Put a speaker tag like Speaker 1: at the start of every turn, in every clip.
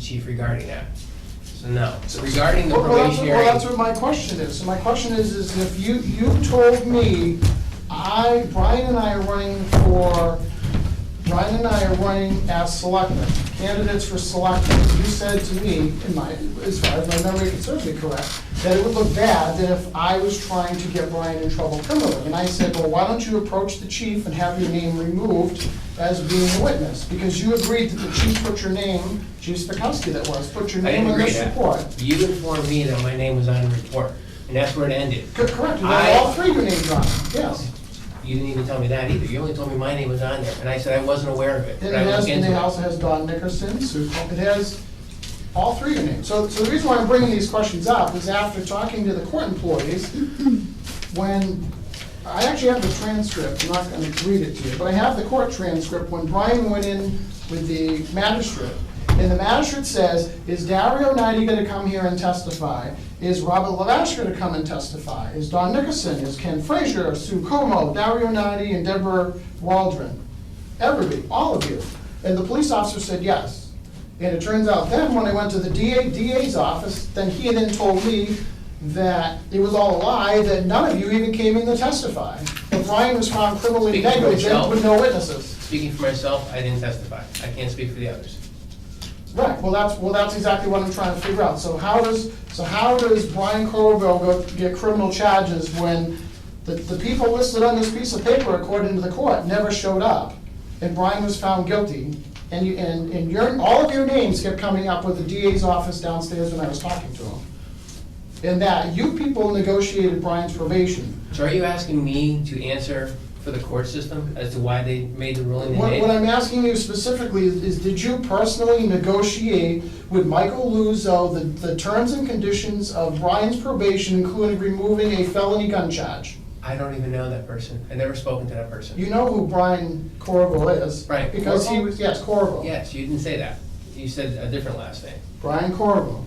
Speaker 1: chief regarding that. So no,
Speaker 2: So-
Speaker 1: regarding the
Speaker 2: Well, well, that's-
Speaker 1: probationary.
Speaker 2: Well, that's what my question is. So my question is, is if you, you told me, I, Brian and I are running for, Brian and I are running as selectmen, candidates for selectmen. You said to me, in my, as far as my memory can serve me correct, that it would look bad that if I was trying to get Brian in trouble criminally. And I said, well, why don't you approach the chief and have your name removed as being a witness? Because you agreed that the chief put your name, Chief Spakowski that was, put your
Speaker 1: I
Speaker 2: name
Speaker 1: didn't
Speaker 2: on
Speaker 1: agree to
Speaker 2: this
Speaker 1: that.
Speaker 2: report.
Speaker 1: You informed me that my name was on the report, and that's where it ended.
Speaker 2: Co- Correct, and
Speaker 1: I-
Speaker 2: then all three were named John, yes.
Speaker 1: You didn't even tell me that either. You only told me my name was on there, and I said I wasn't aware of it.
Speaker 2: Then
Speaker 1: but
Speaker 2: it
Speaker 1: I
Speaker 2: has,
Speaker 1: looked
Speaker 2: and
Speaker 1: into
Speaker 2: it
Speaker 1: it.
Speaker 2: also has Don Nickerson, Sue, Col- it has all three are named. So, so the reason why I'm bringing these questions up is after talking to the court employees, when, I actually have the transcript, I'm not gonna read it to you, but I have the court transcript when Brian went in with the magistrate. And the magistrate says, is Dario Knighty gonna come here and testify? Is Robert Lavash gonna come and testify? Is Don Nickerson, is Ken Frazier, Sue Como, Dario Knighty, and Deborah Waldron? Everybody, all of you. And the police officer said yes. And it turns out then, when I went to the DA, DA's office, then he then told me that it was all a lie, that none of you even came in to testify. That Brian was found criminally
Speaker 1: Speaking for
Speaker 2: negligent
Speaker 1: himself.
Speaker 2: with no witnesses.
Speaker 1: Speaking for myself, I didn't testify. I can't speak for the others.
Speaker 2: Right, well, that's, well, that's exactly what I'm trying to figure out. So how does, so how does Brian Corbo go get criminal charges when the, the people listed on this piece of paper, according to the court, never showed up? And Brian was found guilty, and you, and, and your, all of your names kept coming up with the DA's office downstairs when I was talking to him. And that you people negotiated Brian's probation.
Speaker 1: So are you asking me to answer for the court system as to why they made the ruling
Speaker 2: What,
Speaker 1: they
Speaker 2: what I'm
Speaker 1: made?
Speaker 2: asking you specifically is, is did you personally negotiate with Michael Luzo the, the terms and conditions of Brian's probation, including removing a felony gun charge?
Speaker 1: I don't even know that person. I've never spoken to that person.
Speaker 2: You know who Brian Corvo is.
Speaker 1: Brian
Speaker 2: Because he
Speaker 1: Corvo?
Speaker 2: was, yes, Corvo.
Speaker 1: Yes, you didn't say that. You said a different last name.
Speaker 2: Brian Corvo.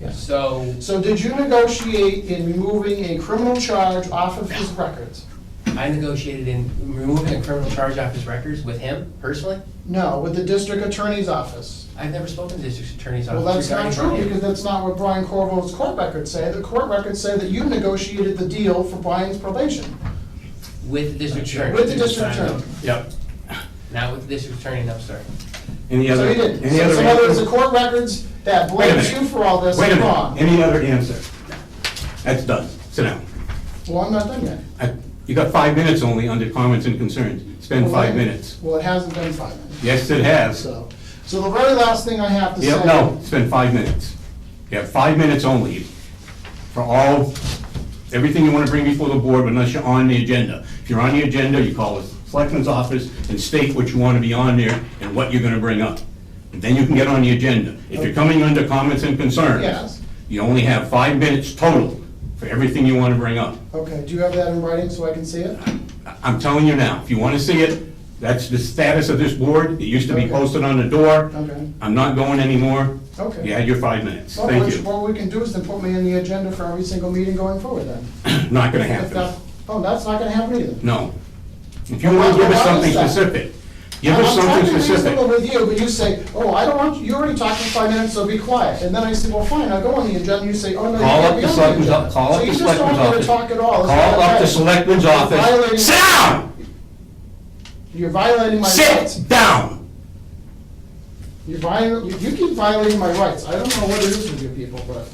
Speaker 2: Yes.
Speaker 1: So
Speaker 2: So did you negotiate in removing a criminal charge off of his records?
Speaker 1: I negotiated in removing a criminal charge off his records with him personally?
Speaker 2: No, with the district attorney's office.
Speaker 1: I've never spoken to the district attorney's
Speaker 2: Well,
Speaker 1: office
Speaker 2: that's not
Speaker 1: regarding
Speaker 2: true,
Speaker 1: Brian.
Speaker 2: because that's not what Brian Corvo's court records say. The court records say that you negotiated the deal for Brian's probation.
Speaker 1: With the district attorney.
Speaker 2: With the district
Speaker 1: Not-
Speaker 2: attorney.
Speaker 3: Yep.
Speaker 1: Not with the district attorney, no, sorry.
Speaker 3: Any
Speaker 2: So
Speaker 3: other?
Speaker 2: he didn't.
Speaker 3: any
Speaker 2: So
Speaker 3: other
Speaker 2: in other words, the
Speaker 3: answer?
Speaker 2: court records that
Speaker 3: Wait a
Speaker 2: blames
Speaker 3: minute.
Speaker 2: you for all this
Speaker 3: Wait a
Speaker 2: are
Speaker 3: minute,
Speaker 2: wrong.
Speaker 3: any other answer? That's done, sit down.
Speaker 2: Well, I'm not done yet.
Speaker 3: I- You got five minutes only under comments and concerns, spend
Speaker 2: Well,
Speaker 3: five
Speaker 2: then-
Speaker 3: minutes.
Speaker 2: Well, it hasn't been five minutes,
Speaker 3: Yes, it has.
Speaker 2: so. So the very last thing I have to say.
Speaker 3: Yep, no, spend five minutes. You have five minutes only for all, everything you want to bring before the board unless you're on the agenda. If you're on the agenda, you call the selectman's office and state what you want to be on there and what you're going to bring up. And then you can get on the agenda. If you're coming under comments and concerns.
Speaker 2: Yes.
Speaker 3: You only have five minutes total for everything you want to bring up.
Speaker 2: Okay, do you have that in writing so I can see it?
Speaker 3: I- I'm telling you now, if you want to see it, that's the status of this board. It used to be
Speaker 2: Okay.
Speaker 3: posted on the door.
Speaker 2: Okay.
Speaker 3: I'm not going anymore.
Speaker 2: Okay.
Speaker 3: You had your five minutes.
Speaker 2: Well,
Speaker 3: Thank
Speaker 2: which-
Speaker 3: you.
Speaker 2: What we can do is then put me in the agenda for every single meeting going forward then.
Speaker 3: Not gonna
Speaker 2: If that,
Speaker 3: happen.
Speaker 2: oh, that's not gonna happen either.
Speaker 3: No. If you want to give us something specific, give us something
Speaker 2: I'm talking reasonable
Speaker 3: specific.
Speaker 2: with you, but you say, oh, I don't want, you already talked for five minutes, so be quiet. And then I say, well, fine, I'll go on the agenda, you say, oh, no, you
Speaker 3: Call
Speaker 2: can't
Speaker 3: up
Speaker 2: be
Speaker 3: the
Speaker 2: on the
Speaker 3: selectman's,
Speaker 2: agenda.
Speaker 3: o- call
Speaker 2: So you
Speaker 3: up the
Speaker 2: just don't
Speaker 3: selectman's
Speaker 2: want me
Speaker 3: office.
Speaker 2: to talk at all. It's not
Speaker 3: Call up the
Speaker 2: right.
Speaker 3: selectman's
Speaker 2: Violating-
Speaker 3: office. Sit down!
Speaker 2: You're violating my rights.
Speaker 3: Sit down!
Speaker 2: You're viol, you you keep violating my rights. I don't know what it is with you people, but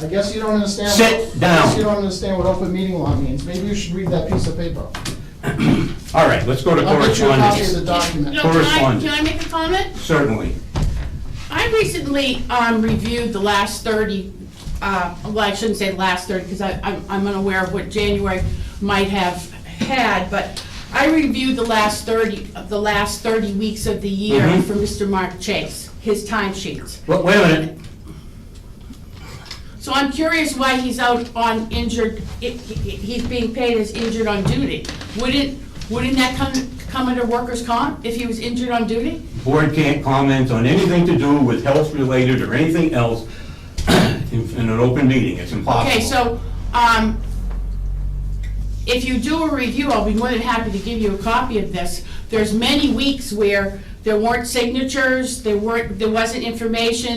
Speaker 2: I guess you don't understand.
Speaker 3: Sit
Speaker 2: what- I guess
Speaker 3: down.
Speaker 2: you don't understand what open meeting law means. Maybe you should read that piece of paper.
Speaker 3: All right, let's go to
Speaker 2: I'll get you a copy of the
Speaker 3: correspondence.
Speaker 2: document.
Speaker 4: No, can I,
Speaker 3: Correspondence.
Speaker 4: can I make a comment?
Speaker 3: Certainly.
Speaker 4: I recently um, reviewed the last 30, uh, well, I shouldn't say last 30, because I'm I'm unaware of what January might have had, but I reviewed the last 30, of the last 30 weeks of the year
Speaker 3: Mhm.
Speaker 4: for Mr. Mark Chase, his time sheets.
Speaker 3: Wait wait a minute.
Speaker 4: So I'm curious why he's out on injured, i- i- he's being paid as injured on duty. Wouldn't, wouldn't that come, come under workers' comp if he was injured on duty?
Speaker 3: board can't comment on anything to do with health-related or anything else in in an open meeting, it's impossible.
Speaker 4: Okay, so, um, if you do a review, I'll be more than happy to give you a copy of this. There's many weeks where There weren't signatures, there weren't, there wasn't information